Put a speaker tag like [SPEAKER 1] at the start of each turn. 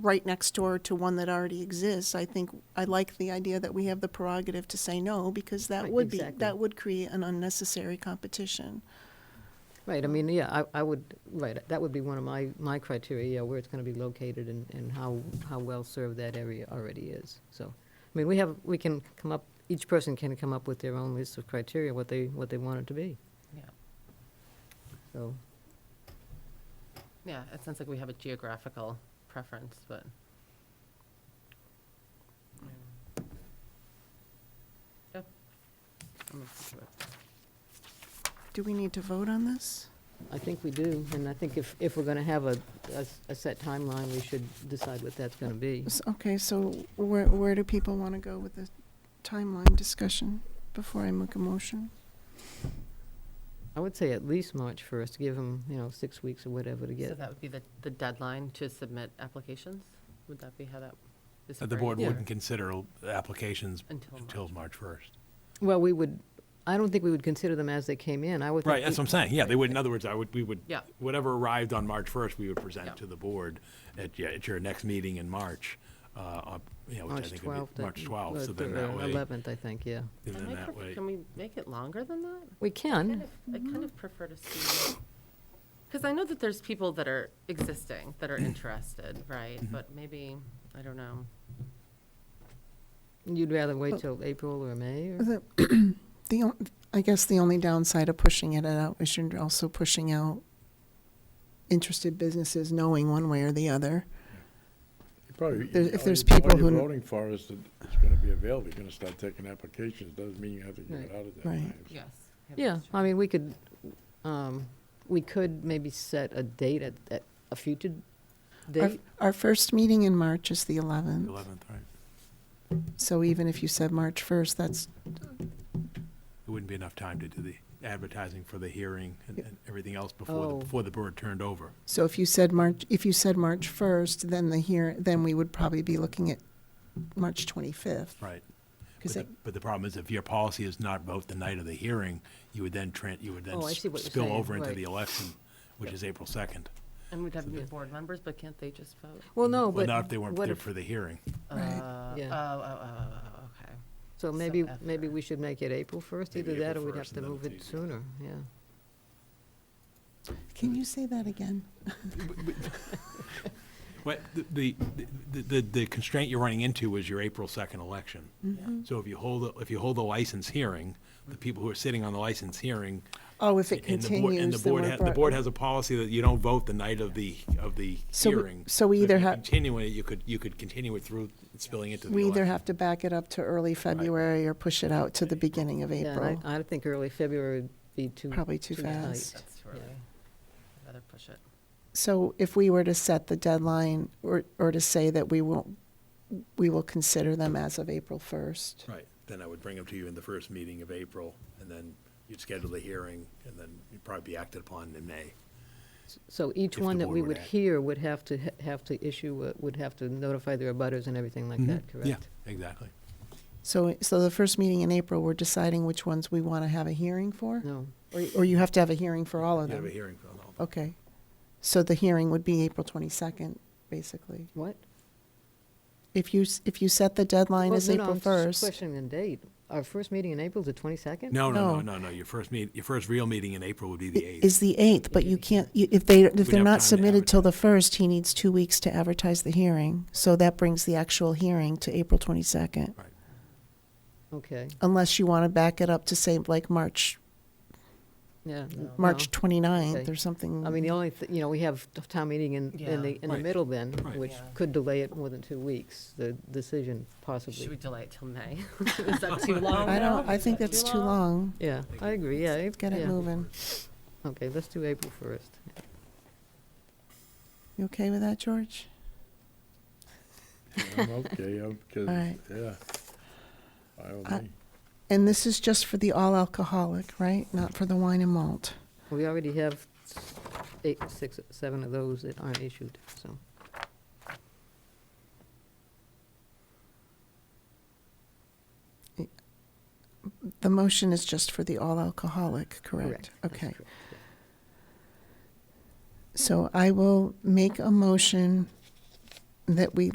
[SPEAKER 1] right next door to one that already exists, I think, I like the idea that we have the prerogative to say no, because that
[SPEAKER 2] Right,
[SPEAKER 1] would be,
[SPEAKER 2] exactly.
[SPEAKER 1] that would create an unnecessary competition.
[SPEAKER 2] Right, I mean, yeah, I, I would, right, that would be one of my, my criteria, yeah, where it's gonna be located and, and how, how well-served that area already is, so. I mean, we have, we can come up, each person can come up with their own list of criteria, what they, what they want it to be,
[SPEAKER 3] Yeah,
[SPEAKER 2] so.
[SPEAKER 3] yeah, it sounds like we have a geographical preference, but. Yeah. I'm open to it.
[SPEAKER 1] Do we need to vote on this?
[SPEAKER 2] I think we do, and I think if, if we're gonna have a, a s- a set timeline, we should decide what that's gonna be.
[SPEAKER 1] S- Okay, so where, where do people want to go with the timeline discussion before I make a motion?
[SPEAKER 2] I would say at least March first, give them, you know, six weeks or whatever to
[SPEAKER 3] So
[SPEAKER 2] get,
[SPEAKER 3] that would be the, the deadline to submit applications? Would that be how that is
[SPEAKER 4] The
[SPEAKER 3] phrased?
[SPEAKER 4] board
[SPEAKER 2] Yeah.
[SPEAKER 4] wouldn't consider applications
[SPEAKER 3] Until
[SPEAKER 4] until
[SPEAKER 3] March.
[SPEAKER 4] March 1st.
[SPEAKER 2] well, we would, I don't think we would consider them as they came in, I would. think
[SPEAKER 4] Right, that's
[SPEAKER 2] we-
[SPEAKER 4] what I'm saying, yeah, they would, in other words, I would, we would,
[SPEAKER 3] Yeah.
[SPEAKER 4] whatever arrived on March 1st, we would
[SPEAKER 3] Yeah.
[SPEAKER 4] present to the board at, yeah, at your next meeting in March, uh, uh, you know, which I
[SPEAKER 2] March
[SPEAKER 4] think would
[SPEAKER 2] twelfth.
[SPEAKER 4] be March 12th, so then that way,
[SPEAKER 2] Eleventh, I think, yeah.
[SPEAKER 4] and
[SPEAKER 3] I
[SPEAKER 4] then
[SPEAKER 3] might
[SPEAKER 4] that
[SPEAKER 3] prefer-
[SPEAKER 4] way,
[SPEAKER 3] Can we make it longer than that?
[SPEAKER 2] We
[SPEAKER 3] kind
[SPEAKER 2] can.
[SPEAKER 3] of, I kind of prefer to see, because I know that there's people that are existing, that are interested, right?
[SPEAKER 4] Mm-hmm.
[SPEAKER 3] But maybe, I don't know.
[SPEAKER 2] You'd rather
[SPEAKER 1] Oh.
[SPEAKER 2] wait till April or May or?
[SPEAKER 1] The, the, on- I guess the only downside of pushing it out is you're also pushing out interested businesses knowing one way or the other.
[SPEAKER 5] You Probably.
[SPEAKER 1] There- if
[SPEAKER 5] all
[SPEAKER 1] there's
[SPEAKER 5] you-
[SPEAKER 1] people
[SPEAKER 5] All
[SPEAKER 1] who-
[SPEAKER 5] you're voting for is that it's gonna be available, you're gonna start taking applications, doesn't mean you have to get
[SPEAKER 2] Right.
[SPEAKER 5] it out of that
[SPEAKER 1] Right.
[SPEAKER 5] time. so-
[SPEAKER 3] Yes.
[SPEAKER 2] Yeah, I mean, we could, um, we could maybe set a date at, at a future
[SPEAKER 1] Our,
[SPEAKER 2] date.
[SPEAKER 1] our first meeting in March is the 11th,
[SPEAKER 4] 11th, right?
[SPEAKER 1] so even if you said March 1st, that's,
[SPEAKER 4] It wouldn't be enough time to do the advertising for the hearing and
[SPEAKER 1] Yeah.
[SPEAKER 4] and everything else before, the
[SPEAKER 2] Oh.
[SPEAKER 4] before the board turned over.
[SPEAKER 1] so if you said March, if you said March 1st, then the here, then we would probably be looking at March 25th.
[SPEAKER 4] Right. But
[SPEAKER 1] Because
[SPEAKER 4] the, but the problem is if your policy is not vote the night of the hearing, you would then tran, you would then
[SPEAKER 2] Oh, I
[SPEAKER 4] s-
[SPEAKER 2] see what you're
[SPEAKER 4] spill
[SPEAKER 2] saying,
[SPEAKER 4] over into
[SPEAKER 2] right.
[SPEAKER 4] the election, which is April 2nd.
[SPEAKER 3] And we'd have new board members, but can't they just vote?
[SPEAKER 2] Well, no,
[SPEAKER 4] Well,
[SPEAKER 2] but
[SPEAKER 4] not if they weren't
[SPEAKER 2] what
[SPEAKER 4] there
[SPEAKER 2] if,
[SPEAKER 4] for the hearing.
[SPEAKER 1] Right.
[SPEAKER 3] Uh,
[SPEAKER 2] Yeah.
[SPEAKER 3] Oh, oh, oh, oh, oh, okay.
[SPEAKER 2] so
[SPEAKER 3] so
[SPEAKER 2] maybe,
[SPEAKER 3] after.
[SPEAKER 2] maybe we should make it April first,
[SPEAKER 4] Maybe
[SPEAKER 2] either that or
[SPEAKER 4] April
[SPEAKER 2] we'd have
[SPEAKER 4] 1st,
[SPEAKER 2] to
[SPEAKER 4] and then
[SPEAKER 2] move
[SPEAKER 4] it's
[SPEAKER 2] it
[SPEAKER 4] easier.
[SPEAKER 2] sooner, yeah.
[SPEAKER 1] Can you say that again?
[SPEAKER 4] But the- the, the, the- the constraint you're running into is your April 2nd election.
[SPEAKER 2] Mm-hmm.
[SPEAKER 4] So if you hold, a- if you hold a license hearing, the people who are sitting on the license hearing.
[SPEAKER 1] Oh, if it
[SPEAKER 4] and the board- and the
[SPEAKER 1] continues, then
[SPEAKER 4] board
[SPEAKER 1] we're.
[SPEAKER 4] ha- The
[SPEAKER 1] bro-
[SPEAKER 4] board has a policy that you don't vote the night of the, of the
[SPEAKER 1] So we-
[SPEAKER 4] hearing.
[SPEAKER 1] so we
[SPEAKER 4] if
[SPEAKER 1] either
[SPEAKER 4] you
[SPEAKER 1] ha-
[SPEAKER 4] Continue it, you could, you could continue it through spilling into the
[SPEAKER 1] We either
[SPEAKER 4] election.
[SPEAKER 1] have to back it up to early February or push it out to the beginning of
[SPEAKER 2] Yeah, and
[SPEAKER 1] April.
[SPEAKER 2] I, I think early February would be too.
[SPEAKER 1] Probably too
[SPEAKER 2] too tight.
[SPEAKER 1] fast.
[SPEAKER 3] That's too
[SPEAKER 2] Yeah.
[SPEAKER 3] early. I'd rather push it.
[SPEAKER 1] So if we were to set the deadline or, or to say that we won't, we will consider them as of April 1st.
[SPEAKER 4] Right, then I would bring them to you in the first meeting of April, and then you'd schedule the hearing, and then you'd probably be acted upon in May.
[SPEAKER 2] So each
[SPEAKER 4] if the
[SPEAKER 2] one that
[SPEAKER 4] board
[SPEAKER 2] we
[SPEAKER 4] would
[SPEAKER 2] would
[SPEAKER 4] act.
[SPEAKER 2] hear would have to, ha- have to issue, a- would have to notify their abutters and everything like that, correct?
[SPEAKER 4] Mm-hmm. Yeah, exactly.
[SPEAKER 1] So, so the first meeting in April, we're deciding which ones we want to have a hearing for?
[SPEAKER 2] No,
[SPEAKER 1] Or, or you have to have a hearing for all of
[SPEAKER 4] You have a
[SPEAKER 1] them?
[SPEAKER 4] hearing for all of them.
[SPEAKER 1] Okay. So the hearing would be April 22nd, basically.
[SPEAKER 2] what?
[SPEAKER 1] If you, s- if you set the deadline
[SPEAKER 2] Well,
[SPEAKER 1] as
[SPEAKER 2] no, no,
[SPEAKER 1] April
[SPEAKER 2] I'm just
[SPEAKER 1] 1st,
[SPEAKER 2] Questioning the date. Our first meeting in April is the twenty-second?
[SPEAKER 4] No, no,
[SPEAKER 1] No.
[SPEAKER 4] no, no, no, your first meet, your first real meeting in April would be the
[SPEAKER 1] i-
[SPEAKER 4] 8th.
[SPEAKER 1] is the 8th, but you can't, you- if they, if they're
[SPEAKER 4] have time
[SPEAKER 1] not
[SPEAKER 4] to
[SPEAKER 1] submitted till the 1st, he needs two weeks to advertise the hearing. So that brings the actual hearing to April 22nd.
[SPEAKER 4] Right.
[SPEAKER 2] Okay,
[SPEAKER 1] unless you want to back it up to say like March,
[SPEAKER 2] yeah.
[SPEAKER 3] No.
[SPEAKER 1] March 29th
[SPEAKER 2] Okay.
[SPEAKER 1] or something.
[SPEAKER 2] I mean, the only, thi- you know, we have t- town meeting in,
[SPEAKER 3] Yeah.
[SPEAKER 2] in the, in the
[SPEAKER 4] Right.
[SPEAKER 2] middle then,
[SPEAKER 4] Right.
[SPEAKER 2] which
[SPEAKER 3] Yeah.
[SPEAKER 2] could delay it more than two weeks, the decision
[SPEAKER 3] Should we
[SPEAKER 2] possibly.
[SPEAKER 3] delay it till May? Is that too long?
[SPEAKER 1] I don't,
[SPEAKER 3] now?
[SPEAKER 1] I
[SPEAKER 3] Is
[SPEAKER 1] think
[SPEAKER 3] that
[SPEAKER 1] that's too long.
[SPEAKER 2] Yeah, I agree, yeah. Let's
[SPEAKER 1] Get it moving.
[SPEAKER 2] Okay, let's do April first.
[SPEAKER 1] You okay with that, George?
[SPEAKER 5] I'm Okay, I'm, cause,
[SPEAKER 1] right. Uh,
[SPEAKER 5] yeah. I
[SPEAKER 1] I-
[SPEAKER 5] don't
[SPEAKER 1] And this is just for the all alcoholic, right? Not for the wine and malt.
[SPEAKER 2] We already have s- eight, six, seven of those that aren't issued, so.
[SPEAKER 1] The motion is just for the all alcoholic, correct?
[SPEAKER 2] that's
[SPEAKER 1] Okay.
[SPEAKER 2] correct, yeah.
[SPEAKER 1] So I will make a motion that we